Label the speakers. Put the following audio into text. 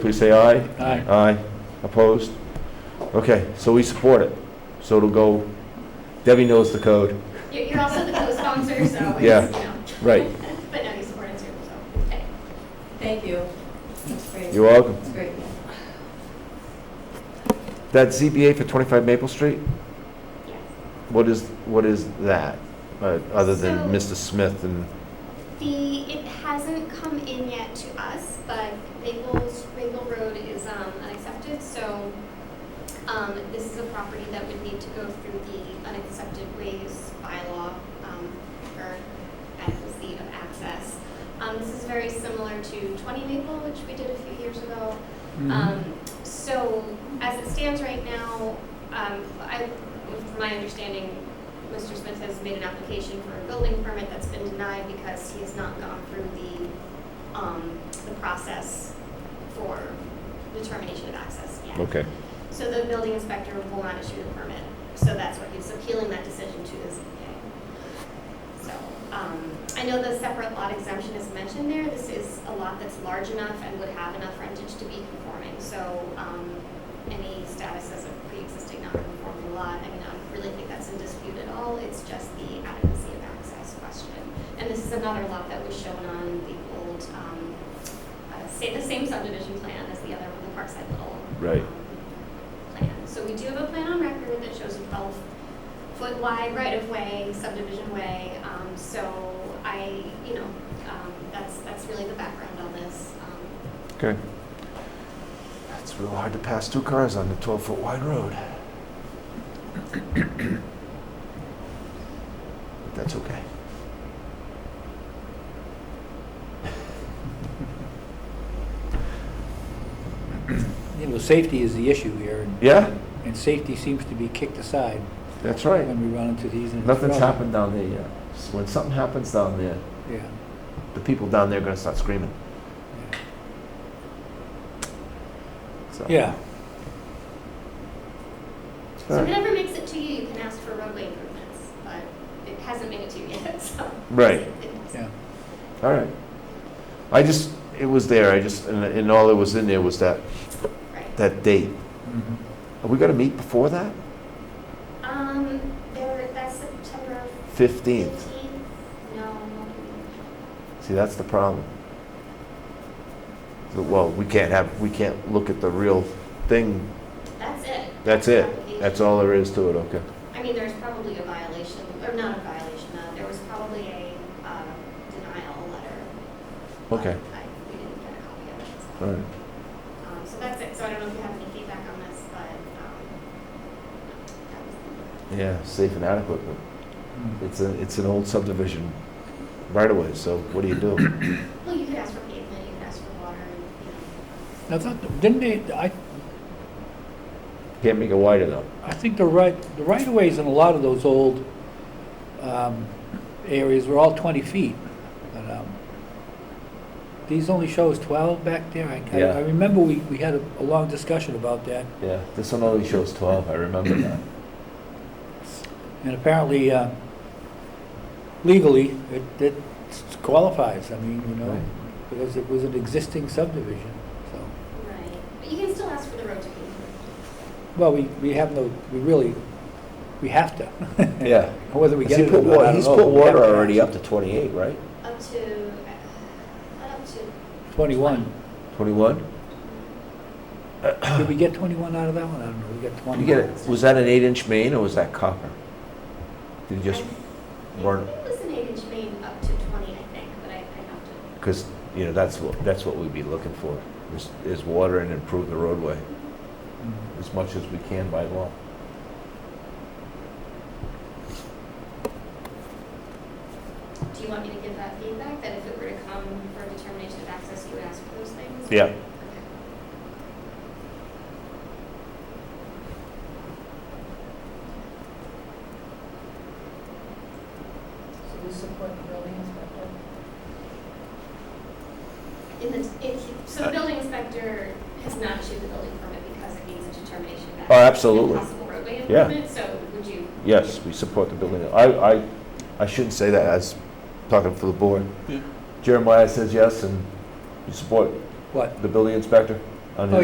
Speaker 1: Please say aye.
Speaker 2: Aye.
Speaker 1: Aye. Opposed? Okay, so we support it. So it'll go, Debbie knows the code.
Speaker 3: You're you're also the co-sponsor, so it's, you
Speaker 1: Yeah.
Speaker 3: know,
Speaker 1: Right.
Speaker 3: but no, you support it too, so, okay.
Speaker 4: Thank you. That's great.
Speaker 1: You're welcome.
Speaker 4: That's great.
Speaker 1: That ZBA for 25 Maple Street,
Speaker 3: Yes.
Speaker 1: what is, what is that? Uh, Other than Mr. Smith and,
Speaker 3: The, it hasn't come in yet to us, but Maple's, Maple Road is um, unaccepted, so um, this is a property that would need to go through the unaccepted ways bylaw um, for adequacy of access. Um, This is very similar to 20 Maple, which we did a few years ago.
Speaker 1: Mm-hmm.
Speaker 2: Mm-hmm.
Speaker 3: Um, So as it stands right now, um, I, from my understanding, Mr. Smith has made an application for a building permit that's been denied because he has not gone through the, um, the process for determination of access yet.
Speaker 1: okay.
Speaker 3: So the building inspector will not issue the permit. So that's what he's appealing that decision to the ZBA. So, um, I know the separate lot exemption is mentioned there. This is a lot that's large enough and would have enough frontage to be conforming. So, um, any status as a pre-existing non-conforming lot, I mean, I don't really think that's in dispute at all. It's just the adequacy of access question. And this is another lot that was shown on the old, um, uh, sa- the same subdivision plan as the other, one, the Parkside Little.
Speaker 1: Right.
Speaker 3: um, plan. So we do have a plan on record that shows a 12-foot wide right-of-way, subdivision way. Um, So I, you know, um, that's, that's really the background on this. Um,
Speaker 1: Okay. It's real hard to pass two cars on the 12-foot wide road. But That's okay.
Speaker 2: Yeah, well, safety is the issue here, and-
Speaker 1: Yeah,
Speaker 2: and safety seems to be kicked aside
Speaker 1: that's right.
Speaker 2: when we run into these. and-
Speaker 1: Nothing's happened down there yet. So When something happens down there,
Speaker 2: Yeah,
Speaker 1: the people down there are going to start screaming.
Speaker 2: yeah.
Speaker 1: So-
Speaker 2: Yeah,
Speaker 3: So if it ever makes it to you, you can ask for roadway improvements, but it hasn't made it to you yet, so.
Speaker 1: Right.
Speaker 2: yeah.
Speaker 1: All right. I just, it was there, I just, and, and all that was in there was that,
Speaker 3: Right.
Speaker 1: that date.
Speaker 2: Mhm.
Speaker 1: Are we gonna meet before that?
Speaker 3: Um, there, that's September
Speaker 1: Fifteenth.
Speaker 3: 15th? No.
Speaker 1: See, that's the problem. So, Well, we can't have, we can't look at the real thing.
Speaker 3: That's it.
Speaker 1: That's
Speaker 3: the
Speaker 1: it.
Speaker 3: application.
Speaker 1: That's all there is to it, okay.
Speaker 3: I mean, there's probably a violation, or not a violation, uh, there was probably a, uh, denial letter. but
Speaker 1: Okay,
Speaker 3: I, we didn't get a copy of it. so.
Speaker 1: all right.
Speaker 3: Um, so that's it, so I don't know if you have any feedback on this, but, um, that was the.
Speaker 1: Yeah, safe and adequate, but
Speaker 2: Mm.
Speaker 1: it's a, it's an old subdivision right away, so what do you do?
Speaker 3: Well, you could ask for pavement, you could ask for water, and, you
Speaker 2: Now, thought- didn't they, I,
Speaker 1: Can't make it wider though.
Speaker 2: I think the right, the right-of-ways in a lot of those old um, areas were all 20 feet. but, um, These only shows 12 back there. I- I
Speaker 1: Yeah.
Speaker 2: I remember we, we had a a long discussion about that.
Speaker 1: Yeah, this one only shows twelve, I remember that.
Speaker 2: And apparently, uh, legally, it, it qualifies, I mean, you know,
Speaker 1: Right.
Speaker 2: because it was an existing subdivision, so.
Speaker 3: know. Right. But you can still ask for the road to be
Speaker 2: Well, we, we have no, we really, we have to.
Speaker 1: Yeah.
Speaker 2: Whether we
Speaker 1: Has
Speaker 2: get
Speaker 1: he
Speaker 2: it
Speaker 1: put
Speaker 2: or not,
Speaker 1: wa-
Speaker 2: I
Speaker 1: He's
Speaker 2: don't know,
Speaker 1: put
Speaker 2: but we have
Speaker 1: water
Speaker 2: to.
Speaker 1: already up to 28, right?
Speaker 3: up to, uh, up to,
Speaker 2: Twenty-one.
Speaker 1: 21?
Speaker 2: Did we get twenty-one out of that one? I don't know, we got twenty.
Speaker 1: You get it, was that an eight-inch main or was that copper? Did you
Speaker 3: I
Speaker 1: just,
Speaker 3: think
Speaker 1: burn
Speaker 3: it was an eight-inch main up to twenty, I think, but I, I have to
Speaker 1: because, you know, that's what, that's what we'd be looking for, is, is water and improve the roadway
Speaker 2: Mm.
Speaker 1: as much as we can by law.
Speaker 3: Do you want me to give that feedback, that if it were to come for determination of access, you would ask for those things?
Speaker 1: Yeah.
Speaker 3: Okay.
Speaker 4: So we support the building inspector?
Speaker 3: In the, it, so
Speaker 1: Uh,
Speaker 3: the building inspector has not issued the building permit because it needs a determination of
Speaker 1: Oh,
Speaker 3: access.
Speaker 1: absolutely.
Speaker 3: and Possible roadway
Speaker 1: Yeah.
Speaker 3: improvement, so would you,
Speaker 1: Yes, we support the building. I, I, I shouldn't say that as talking for the board. Jeremiah says yes, and you support
Speaker 2: What?
Speaker 1: the building inspector? on
Speaker 2: Oh,
Speaker 1: his